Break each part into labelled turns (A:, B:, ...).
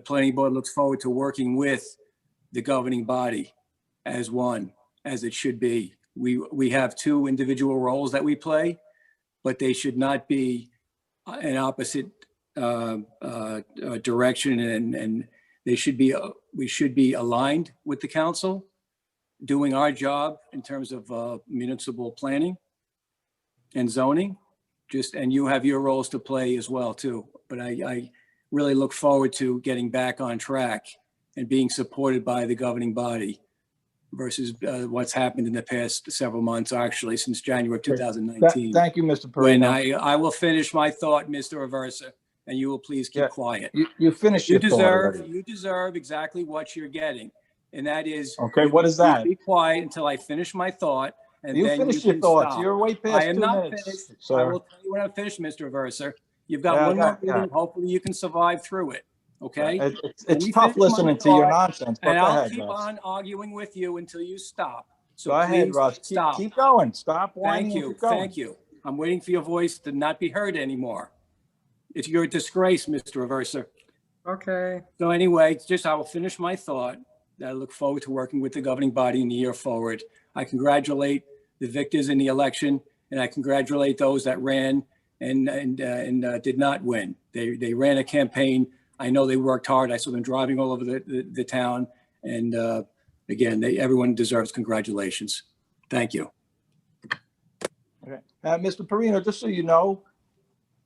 A: The planning board looks forward to working with the governing body as one, as it should be. We, we have two individual roles that we play, but they should not be uh, in opposite uh, uh, uh, direction and, and they should be, uh, we should be aligned with the council, doing our job in terms of uh, municipal planning and zoning. Just, and you have your roles to play as well too. But I, I really look forward to getting back on track and being supported by the governing body versus uh, what's happened in the past several months, actually, since January of
B: Great. Tha-
A: 2019.
B: Thank you, Mr.
A: When
B: Perino.
A: I, I will finish my thought, Mr. Aversa, and you will please
B: Yeah.
A: keep quiet.
B: You, you finished
A: You
B: your thought
A: deserve,
B: already.
A: you deserve exactly what you're getting, and that is.
B: Okay, what is that?
A: Be quiet until I finish my thought, and
B: You
A: then you
B: finished your
A: can
B: thoughts.
A: stop.
B: You're way past
A: I am
B: two
A: not
B: minutes.
A: finished. I
B: sir.
A: will tell you when I'm finished, Mr. Aversa. You've
B: Yeah, I
A: got one more
B: got- yeah.
A: meeting, hopefully you can survive through it, okay?
B: It- It's
A: Let
B: it's
A: me
B: tough
A: finish my
B: listening to your
A: thought,
B: nonsense, but
A: And
B: go
A: I'll
B: ahead,
A: keep
B: Russ.
A: on arguing with you until you stop. So
B: Go ahead,
A: please
B: Russ. Keep-
A: Stop.
B: Keep going. Stop
A: Thank
B: whining and
A: you,
B: keep going.
A: thank you. I'm waiting for your voice to not be heard anymore. It's your disgrace, Mr. Aversa.
C: Okay,
A: So anyway, it's just I will finish my thought. that I look forward to working with the governing body in the year forward. I congratulate the victors in the election, and I congratulate those that ran and and uh, and uh, did not win. They they ran a campaign. I know they worked hard. I saw them driving all over the the, the town. And uh, again, they, everyone deserves congratulations. Thank you.
B: Okay. Uh, Mr. Perino, just so you know,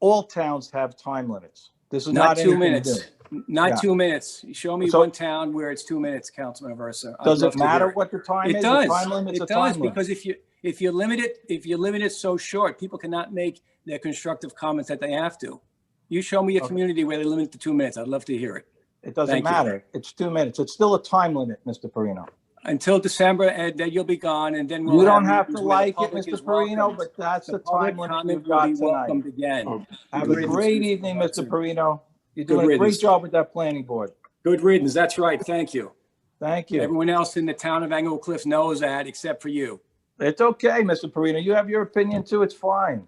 B: all towns have time limits. This is
A: Not
B: not
A: two
B: anything to
A: minutes.
B: do.
A: Not
B: Yeah.
A: two minutes. Show me
B: So-
A: one town where it's two minutes, Councilman Aversa. I'd
B: Does
A: love
B: it
A: to hear
B: matter what the time is?
A: It
B: A
A: does.
B: Time limit's a
A: It
B: time
A: does,
B: limit.
A: because if you, if you limit it, if you limit it so short, people cannot make their constructive comments that they have to. You show me a
B: Okay.
A: community where they limit it to two minutes, I'd love to hear it.
B: It doesn't
A: Thank you.
B: matter. It's two minutes. It's still a time limit, Mr. Perino.
A: Until December, Ed, then you'll be gone, and then we'll.
B: You don't have to
A: meetings where the
B: like it,
A: public
B: Mr.
A: is welcomed.
B: Perino, but that's
A: The
B: the time
A: public
B: limit
A: comment
B: you've got
A: will be
B: tonight.
A: welcomed again.
B: Have
A: Good
B: a
A: riddance,
B: great
A: Mr.
B: evening, Mr.
A: Johnson.
B: Perino. You're
A: Good
B: doing a great
A: riddance.
B: job with that planning board.
A: Good riddance, that's right, thank you.
B: Thank you.
A: Everyone else in the town of Angle Cliff knows that, except for you.
B: It's okay, Mr. Perino. You have your opinion too. It's fine.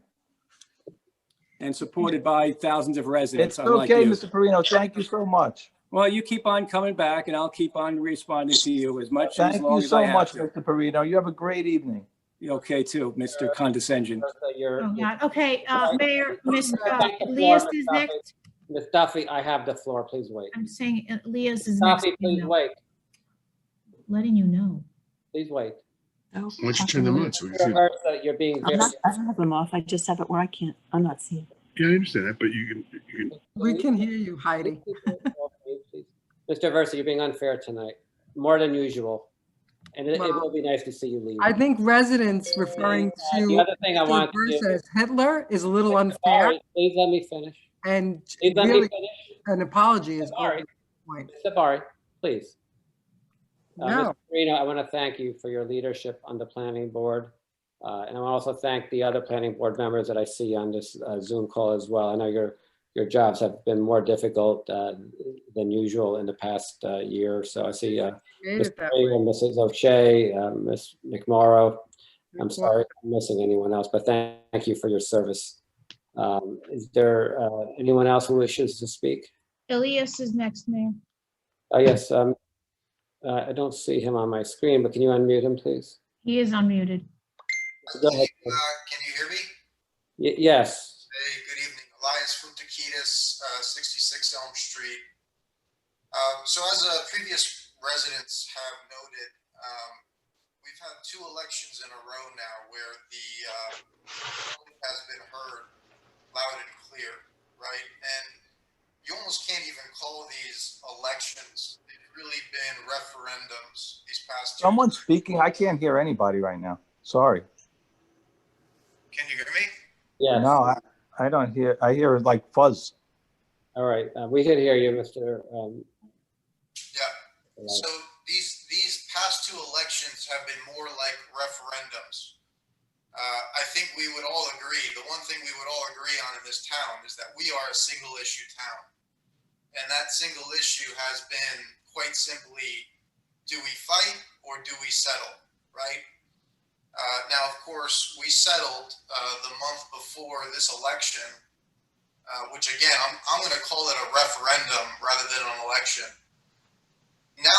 A: and supported by thousands of residents
B: It's
A: unlike
B: okay,
A: you.
B: Mr. Perino. Thank you so much.
A: Well, you keep on coming back and I'll keep on responding to you as much and
B: Thank
A: as long
B: you
A: as I
B: so
A: have
B: much,
A: to.
B: Mr. Perino. You have a great evening.
A: Okay, too, Mr. Condescension.
D: Oh,
E: You're,
D: God. Okay, uh,
E: Sorry.
D: Mayor, Ms.
E: Back and forth,
D: Leas is
E: Mustafi.
D: next.
E: Ms. Duffy, I have the floor, please wait.
D: I'm saying uh, Leas is next.
E: Duffy, please
D: Lino.
E: wait,
D: Letting you know.
E: please wait.
F: Oh,
G: Why don't you
F: I
G: turn
F: don't
G: them
F: know.
G: on so we can see? them?
E: Versa, You're being
F: I'm
E: very.
F: not, I don't have them off. I just have it where I can't, I'm not seeing.
G: Yeah, I understand that, but you can, you can,
C: we can hear you, Heidi.
E: Mr. Versa, you're being unfair tonight, more than usual. And it, it will be nice to see you leave.
C: I think residents referring
E: And The
C: to
E: other thing I
C: the
E: want to
C: person
E: do.
C: as Hitler is a little unfair
E: Sorry, Please let me finish.
C: and
E: Please let me
C: really
E: finish.
C: an apology is
E: Sorry.
C: all point.
E: Sabari, please. Uh,
C: No.
E: Mr. Marino, I want to thank you for your leadership on the planning board. Uh, And I want to also thank the other planning board members that I see on this uh, Zoom call as well. I know your, your jobs have been more difficult uh, than usual in the past uh, year. or So I see uh,
C: Made
E: Mr.
C: it that
E: Marino, Mrs. O'Shea, uh, Ms. McMorro. I'm
C: way.
E: sorry if I'm missing anyone else, but thank you for your service. Um, Is there uh, anyone else who wishes to speak?
D: Elias is next, Mayor.
E: Oh, yes. um, uh, I don't see him on my screen, but can you unmute him, please?
D: He is unmuted.
E: Go ahead.
H: Uh, Can you hear me?
E: Y- Yes,
H: Hey, good evening. Elias Futakidis, uh, 66 Elm Street. Um, So as uh, previous residents have noted, um, we've had two elections in a row now where the uh, public has been heard loud and clear, right? And you almost can't even call these elections. They've really been referendums these past two.
B: Someone's speaking. I can't hear anybody right now. Sorry.
H: Can you hear me?
E: yes.
B: No, I, I don't hear, I hear like fuzz.
E: All right, uh, we can hear you, Mr. um,
H: Yeah.
E: Elias.
H: So these, these past two elections have been more like referendums. Uh, I think we would all agree, the one thing we would all agree on in this town is that we are a single issue town. And that single issue has been quite simply, do we fight or do we settle, right? Uh, now, of course, we settled, uh, the month before this election. uh, which again, I'm, I'm going to call it a referendum rather than an election.